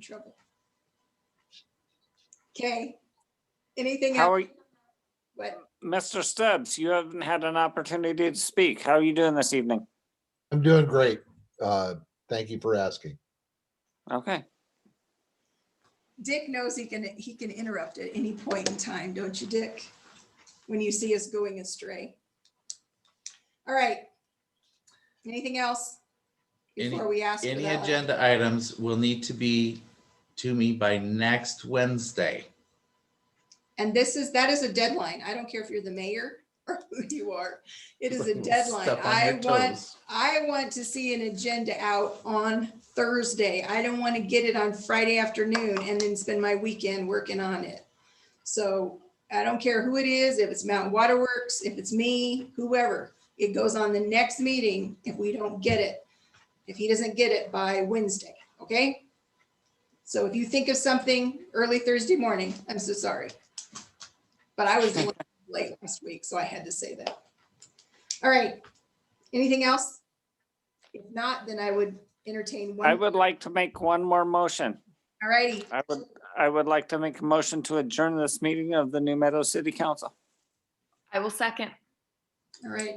trouble. Okay. Anything How else? are, you- What? Mr. Stubbs, you haven't had an opportunity to speak. How are you doing this evening? I'm doing great. Uh, Thank you for asking. Okay, Dick knows he can, he can interrupt at any point in time, don't you, Dick? When you see us going astray. All right. Anything else? Any- Before we ask. uh, for Any that? agenda items will need to be to me by next Wednesday. And this is, that is a deadline. I don't care if you're the mayor or who you are. It is a deadline. Step on I your want, toes. I want to see an agenda out on Thursday. I don't want to get it on Friday afternoon and then spend my weekend working on it. So I don't care who it is, if it's Mountain Waterworks, if it's me, whoever, it goes on the next meeting if we don't get it. If he doesn't get it by Wednesday, okay? So if you think of something early Thursday morning, I'm so sorry. But I was late last week, so I had to say that. All right, anything else? If not, then I would entertain one. I would like to make one more motion. All righty, I would, I would like to make a motion to adjourn this meeting of the New Meadows City Council. I will second. all right,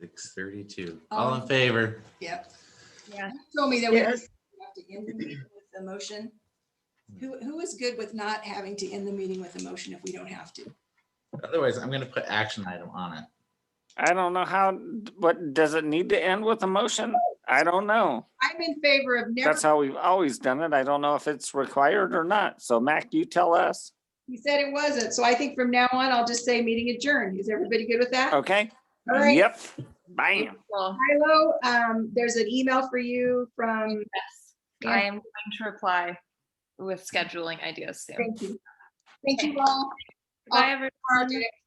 Six thirty-two. Um, All in favor? yep. Yeah. You Told me that we have to end the meeting with a motion. Who, who is good with not having to end the meeting with a motion if we don't have to? Otherwise, I'm gonna put action item on it. I don't know how, what, does it need to end with a motion? I don't know. I'm in favor of never, That's how we've always done it. I don't know if it's required or not. So Mac, you tell us. he said it wasn't, so I think from now on, I'll just say meeting adjourned. Is everybody good with that? All Okay? right. Uh, Yep. Bam. Well, Milo, um, there's an email for you from, yes, Yeah. I am going to reply with scheduling ideas soon. thank you. Thank you all. Bye, everyone. Project.